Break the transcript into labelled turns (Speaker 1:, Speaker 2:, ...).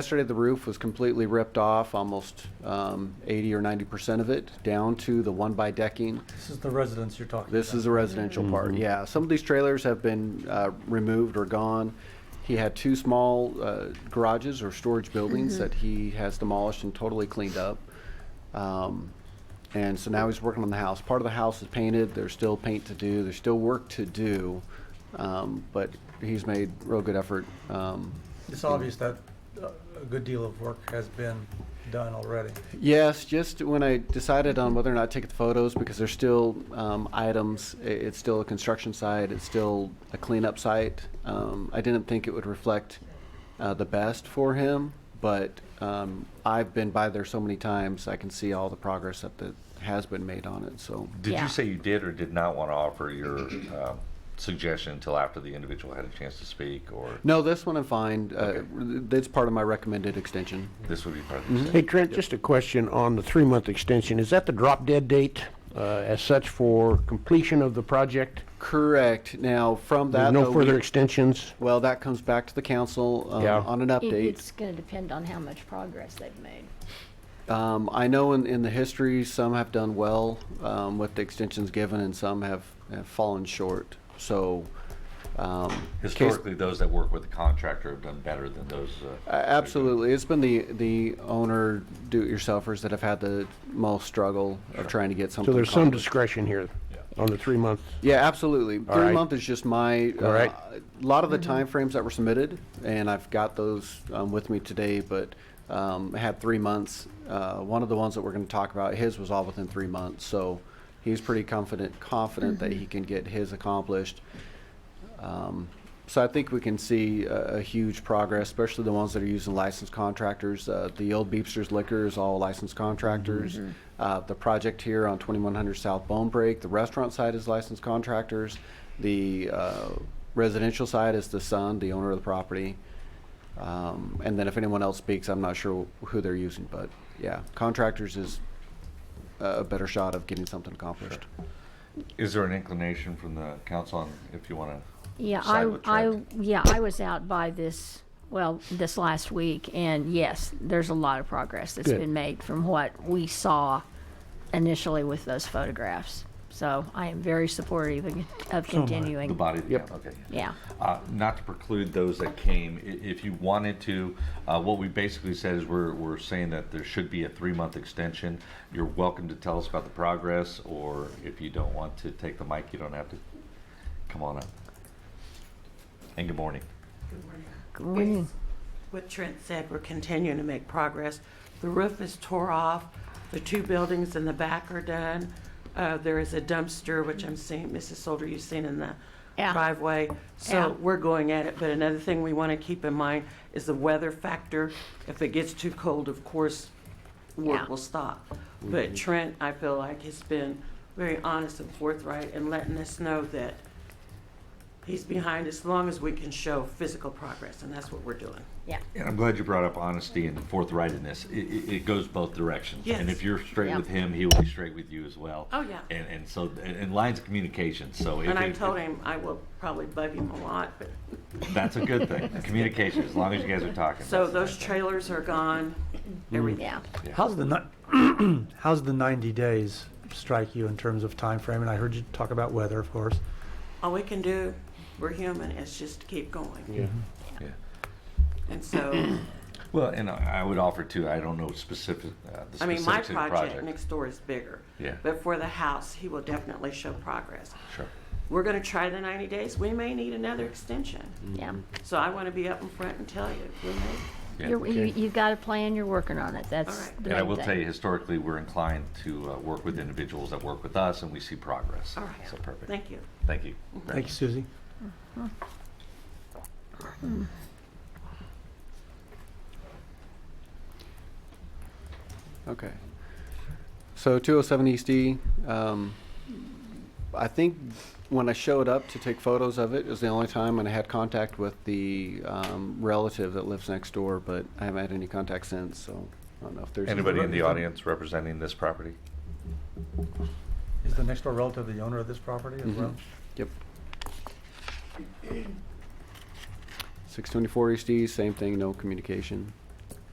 Speaker 1: Yesterday, the roof was completely ripped off, almost um, 80 or 90% of it, down to the one-by decking.
Speaker 2: This is the residence you're talking about.
Speaker 1: This is a residential part, yeah. Some of these trailers have been uh, removed or gone. He had two small uh, garages or storage buildings that he has demolished and totally cleaned up. Um, And so now he's working on the house. Part of the house is painted, there's still paint to do, there's still work to do, um, but he's made real good effort. um,
Speaker 2: It's obvious that uh, a good deal of work has been done already.
Speaker 1: Yes, just when I decided on whether or not to take the photos, because there's still um, items, i- it's still a construction site, it's still a cleanup site. Um, I didn't think it would reflect uh, the best for him, but um, I've been by there so many times, I can see all the progress that the, has been made on it. So
Speaker 3: Did
Speaker 4: Yeah.
Speaker 3: you say you did or did not want to offer your um, suggestion until after the individual had a chance to speak, or
Speaker 1: no, this one I'm fine. Uh, that's part of my recommended extension.
Speaker 3: this would be part of
Speaker 1: Mm-hmm.
Speaker 3: the decision?
Speaker 5: Hey, Trent, just a question on the three-month extension. Is that the drop dead date uh, as such for completion of the project?
Speaker 1: Correct. Now from that,
Speaker 5: There's no
Speaker 1: though,
Speaker 5: further
Speaker 1: we-
Speaker 5: extensions?
Speaker 1: well, that comes back to the council um,
Speaker 5: Yeah.
Speaker 1: on an
Speaker 4: It-
Speaker 1: update.
Speaker 4: It's going to depend on how much progress they've made.
Speaker 1: Um, I know in, in the history, some have done well um, with the extensions given, and some have, have fallen short. So, um, case-
Speaker 3: Historically, those that work with the contractor have done better than those.
Speaker 1: a-
Speaker 3: Uh,
Speaker 1: absolutely, it's been the the owner do-it-yourselfers that have had the most struggle of trying to get something.
Speaker 5: So there's some
Speaker 1: accomplished.
Speaker 5: discretion here
Speaker 3: Yeah.
Speaker 5: on the three-month.
Speaker 1: Yeah, absolutely.
Speaker 5: All
Speaker 1: Three
Speaker 5: right.
Speaker 1: month is just my. uh,
Speaker 5: All right.
Speaker 1: A lot of the timeframes that were submitted, and I've got those um, with me today. But um, I had three months. Uh, one of the ones that we're going to talk about, his was all within three months. So he's pretty confident confident that he can get his accomplished. Um, so I think we can see a, a huge progress, especially the ones that are using licensed contractors. Uh, the old Beepsters Liquor is all licensed contractors. Uh, the project here on 2100 South Bone Break, the restaurant side is licensed contractors. The uh, residential side is the son, the owner of the property. Um, and then if anyone else speaks, I'm not sure who they're using, but yeah, contractors is a a better shot of getting something accomplished.
Speaker 3: is there an inclination from the council on if you want to?
Speaker 4: Yeah,
Speaker 3: Side
Speaker 4: I,
Speaker 3: with
Speaker 4: I,
Speaker 3: Trent.
Speaker 4: yeah, I was out by this, well, this last week, and yes, there's a lot of progress that's
Speaker 5: Good.
Speaker 4: been made from what we saw initially with those photographs. So I am very supportive of- of
Speaker 3: The
Speaker 4: continuing.
Speaker 3: body of the
Speaker 5: Yep.
Speaker 3: council? Okay.
Speaker 4: Yeah,
Speaker 3: Uh, Not to preclude those that came, I- if you wanted to, uh, what we basically said is we're, we're saying that there should be a three-month extension. You're welcome to tell us about the progress, or if you don't want to take the mic, you don't have to. Come on up. And good morning.
Speaker 4: Good morning.
Speaker 6: What Trent said, we're continuing to make progress. The roof is tore off, the two buildings in the back are done. Uh, There is a dumpster, which I'm seeing, Mrs. Solder, you've seen in the
Speaker 4: Yeah.
Speaker 6: driveway.
Speaker 4: Yeah.
Speaker 6: So we're going at it, but another thing we want to keep in mind is the weather factor. If it gets too cold, of course,
Speaker 4: Yeah.
Speaker 6: work will stop.
Speaker 3: Mm-hmm.
Speaker 6: But Trent, I feel like, has been very honest and forthright in letting us know that he's behind as long as we can show physical progress, and that's what we're doing.
Speaker 4: yeah,
Speaker 3: And I'm glad you brought up honesty and forthrightness. It, it, it goes both directions. And
Speaker 6: Yes.
Speaker 3: if you're straight
Speaker 4: Yeah.
Speaker 3: with him, he will be straight with you as well.
Speaker 6: Oh, yeah.
Speaker 3: And, and so, and, and lines of communication, so. if-
Speaker 6: And I
Speaker 3: if-
Speaker 6: told him I will probably bug him a lot, but,
Speaker 3: That's a good thing. Communication, as long as you guys are talking.
Speaker 6: so
Speaker 3: that's the
Speaker 6: those
Speaker 3: main thing.
Speaker 6: trailers are gone, everything.
Speaker 4: yeah.
Speaker 2: How's the, ni- how's the 90 days strike you in terms of time frame? And I heard you talk about weather, of course.
Speaker 6: All we can do, we're human, is just to keep going.
Speaker 3: Yeah.
Speaker 6: And so,
Speaker 3: Well, and I I would offer too, I don't know specific, uh, the
Speaker 6: I mean, my
Speaker 3: specifics of the
Speaker 6: project
Speaker 3: project.
Speaker 6: next door is bigger.
Speaker 3: Yeah.
Speaker 6: But for the house, he will definitely show progress.
Speaker 3: Sure.
Speaker 6: We're gonna try the ninety days, we may need another extension.
Speaker 4: Yeah,
Speaker 6: So I wanna be up in front and tell you, we may,
Speaker 3: Yeah.
Speaker 4: You're- you, you've got a plan, you're working on it, that's
Speaker 6: Alright.
Speaker 4: the
Speaker 3: And I
Speaker 4: main
Speaker 3: will
Speaker 4: thing.
Speaker 3: tell you, historically, we're inclined to uh, work with individuals that work with us and we see progress.
Speaker 6: all right.
Speaker 3: So perfect.
Speaker 6: Thank you.
Speaker 3: Thank you.
Speaker 2: Thank you, Susie.
Speaker 1: Okay. So 207 East D, E um, I think when I showed up to take photos of it, it was the only time when I had contact with the um, relative that lives next door, but I haven't had any contact since, so I don't know if there's.
Speaker 3: Anybody in the audience representing this property?
Speaker 2: Is the next door relative the owner of this property as well?
Speaker 1: Mhm. Yep. E 624 East D, same thing, no communication.